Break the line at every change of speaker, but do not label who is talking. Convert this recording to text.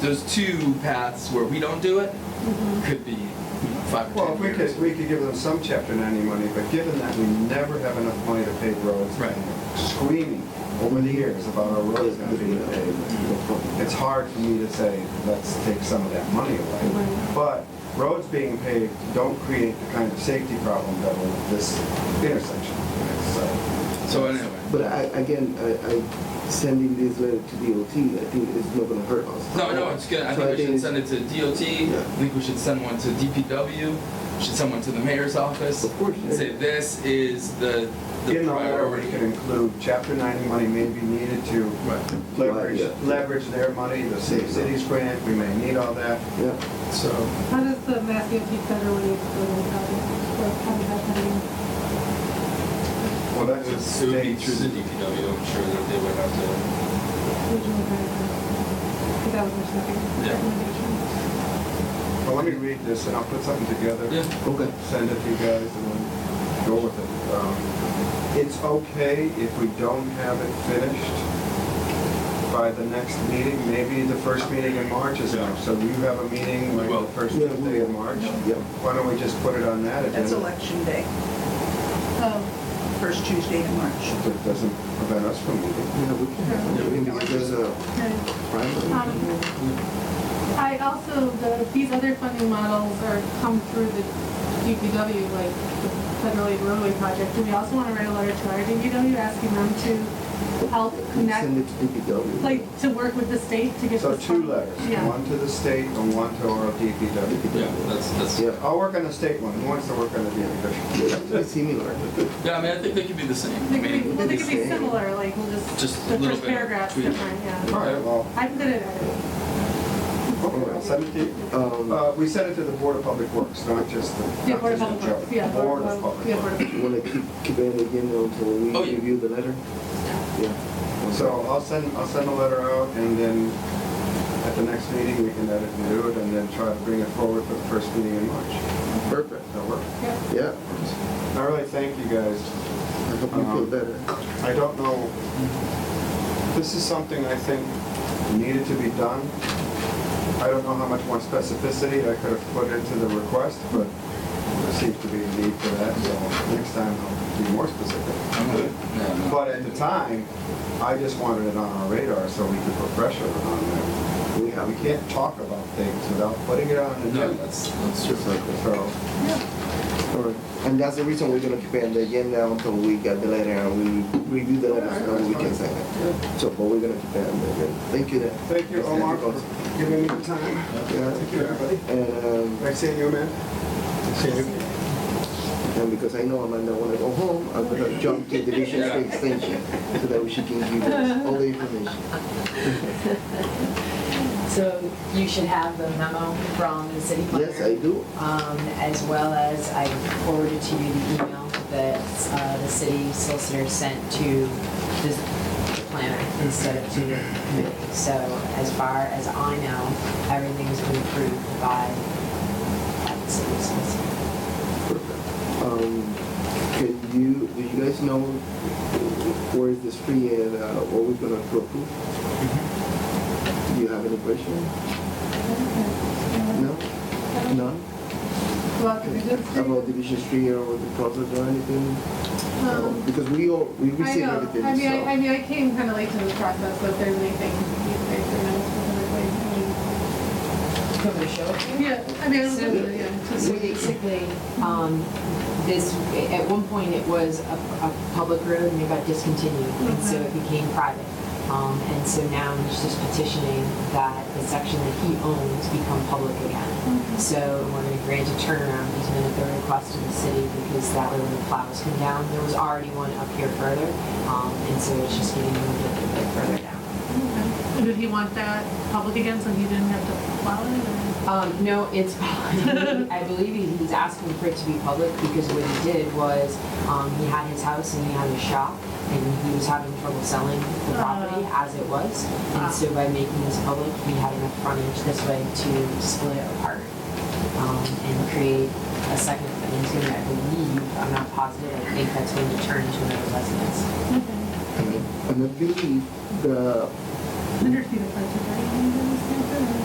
those two paths where we don't do it could be you know, five
Well,
or
if
ten
we
years.
could, we could give them some chapter ninety money, but given that we never have enough money to pave roads.
Right.
Screaming over the years about our roads not being paved. It's hard for me to say, let's take some of that money away.
Right.
But roads being paved don't create the kind of safety problem that will this intersection, so.
So anyway,
But I, again, I, I, sending this letter to DOT, I think it's not gonna hurt us.
no, no, it's good. I
So
think we should send
it's-
it to DOT.
Yeah.
I think we should send one to DPW. Should send one to the mayor's office.
Of course,
And say
yeah.
this is the the
In the letter, we
priority.
could include chapter ninety money may be needed to
Right.
leverage,
Yeah.
leverage their money, the Safe Cities grant, we may need all that.
Yeah,
So.
How does the Mass DOT federally explain how it- or how does that happen?
Well,
It
that's
would it
a
would be
state's-
through the DPW, I'm sure that they would have
Regional guidelines? That was my second
Yeah.
recommendation.
Well, let me read this, and I'll put something together.
Yeah.
okay.
Send it to you guys, and we'll go with it. Um, It's okay if we don't have it finished by the next meeting, maybe the first meeting in March is enough. So you have a meeting like
Well-
the first
Yeah, we
Tuesday
will.
in March?
Yeah.
Why don't we just put it on that agenda?
That's election day,
Um,
first Tuesday in March.
That doesn't prevent us from meeting.
Yeah, we can have it, I mean, because there's a
okay.
primary.
um, I also, the, these other funding models are come through the DPW, like the Federal Aid Roadway Project. Do we also want to write a letter to our DPW asking them to help
We
connect,
Send it to DPW.
Um, like, to work with the state to get this?
So two
fund-
letters,
Yeah.
one to the state and one to our DPW.
to. Yeah, that's, that's,
Yeah.
I'll work on the state one, who wants to work on the DPW?
Yeah, it's similar.
yeah, I mean, I think they could be the same. I
They could be,
mean,
well, they could be
Maybe.
similar, like, we'll just, the
Just a little
first
bit of
paragraph's
tweak.
different, yeah.
All right, well,
I'm good at it.
okay, I'll send it to you.
Um,
Uh, we sent it to the Board of Public Works, not just the.
Yeah,
not
Board of
just
Public
the
Works, yeah.
Board of
Board-
Public
yeah, Board
Works.
of-
wanna keep, keep it again until we
Oh, yeah.
review the letter? Yeah.
So I'll send, I'll send a letter out and then at the next meeting, we can edit and do it and then try to bring it forward for the first meeting in March.
Perfect.
That'll work.
Yeah.
Yeah,
I really thank you guys.
I hope you feel
Um,
better.
I don't know, this is something I think needed to be done. I don't know how much more specificity I could have put into the request, but there seems to be a need for that, so next time I'll be more specific.
I'm good. Yeah, no.
But at the time, I just wanted it on our radar so we could put pressure on them. We we can't talk about things without putting it on the
No,
agenda.
that's, that's true.
So,
All right. And that's the reason we're gonna keep it on the agenda until we get the letter and we review the letter, so we can sign it. So, but we're gonna keep it on the agenda. Thank you then.
thank you, Omar, for giving me the time.
Yeah,
Thank you, everybody.
and, um,
Nice seeing you, man. See you.
And because I know Amanda wanna go home, I'm gonna jump to Division
Yeah.
Three Extension so that she can give us all the information.
So you should have the memo from the city planner.
Yes, I do.
Um, as well as I forwarded to you the email that, uh, the city solicitor sent to the planner instead of to the committee. So as far as I know, everything's been approved by by the city solicitor.
Um, Can you, do you guys know where is this free and uh, what we're gonna approve? Do you have any question? No? None?
Well, could we just-
About Division Three or the process or anything? No,
Um,
Because we all, we
I
received
know.
everything,
I mean, I, I
so.
mean, I came kind of late to this process, so if there's anything you think you know, specifically, I
Do you want me to show it to you?
mean, yeah, I mean, I was,
So-
yeah, just-
So basically, um, this, at one point, it was a, a public road and it got discontinued, and so it became private. Um, and so now he's just petitioning that the section that he owns become public again. So we're gonna grant a turnaround easement at the request of the city, because that way when the plows come down, there was already one up here further, um, and so it's just getting moved a little bit further down.
Okay. Did he want that public again, so he didn't have to plow it? or-
Um, no, it's, I believe he- he's asking for it to be public because what he did was, um, he had his house and he had his shop and he was having trouble selling the property
Ah.
as it was.
Ah.
And so by making this public, he had enough frontage this way to split it apart, um, and create a second, and he's gonna, I believe, I'm not positive, I think that's going to turn into another residence.
And I believe the
Understood, if I took that, I didn't understand that.